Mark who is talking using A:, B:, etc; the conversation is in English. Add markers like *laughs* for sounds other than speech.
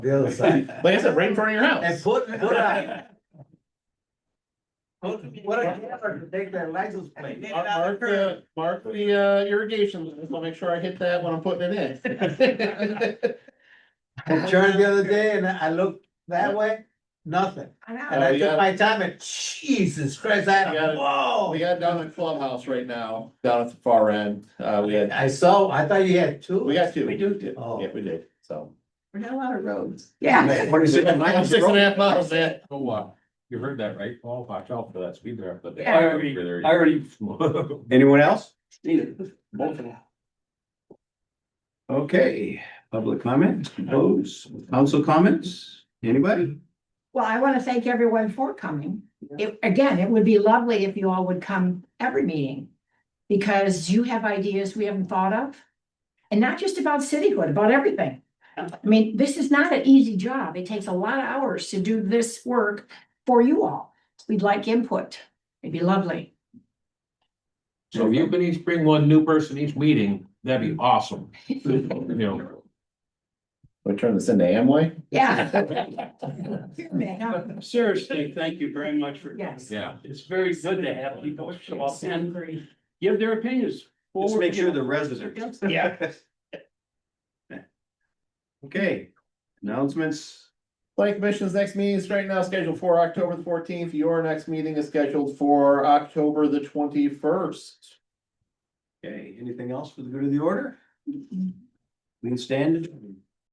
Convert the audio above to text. A: the
B: *laughs*
A: other side.
B: Like I said, right in front of your
A: And
B: house.
A: put, put a, put,
B: *laughs*
A: put a camera to take their license plate.
B: Mark- Mark the, mark the uh, irrigation, I'll make sure I hit that when I'm putting it in. *laughs*
A: I turned the other day and I looked that way, nothing. And
B: Oh,
A: I
B: you
A: took
B: got-
A: my time and Jesus Christ,
B: You
A: I,
B: got it.
A: whoa.
B: We got down at clubhouse right now, down at the far end, uh, we had,
A: I saw, I thought you had two.
B: we got two, we do, do.
A: Oh.
B: yeah, we did, so.
C: We got a lot of roads. Yeah.
A: Man,
B: Six and a half miles, man.
D: Oh, wow. You heard that, right? Paul? watch out for that speed there. but-
C: Yeah. I
D: There you-
E: I already, *laughs* anyone else? Okay, public comment, those, council comments, anybody?
C: Well, I want to thank everyone for coming. It, again, it would be lovely if you all would come every meeting. Because you have ideas we haven't thought of. And not just about cityhood, about everything. I mean, this is not an easy job. It takes a lot of hours to do this work for you all. We'd like input. It'd be lovely.
F: So if you can each bring one new person each meeting, that'd be awesome.
E: Mm-hmm.
F: You know,
B: We turn this into Amway?
C: *laughs* Yeah. *laughs* Here, man, huh?
G: Seriously, thank you very much for.
C: Yes.
F: yeah.
G: It's very good to have people show up and give their opinions.
E: Let's
G: forward,
E: make
G: you
E: sure
G: know.
E: the residents.
G: Yeah.
E: Okay, announcements,
B: Planning Commission's next meeting is right now scheduled for October the fourteenth. Your next meeting is scheduled for October the twenty-first.
E: okay, anything else for the good of the order? We can stand. adjourned.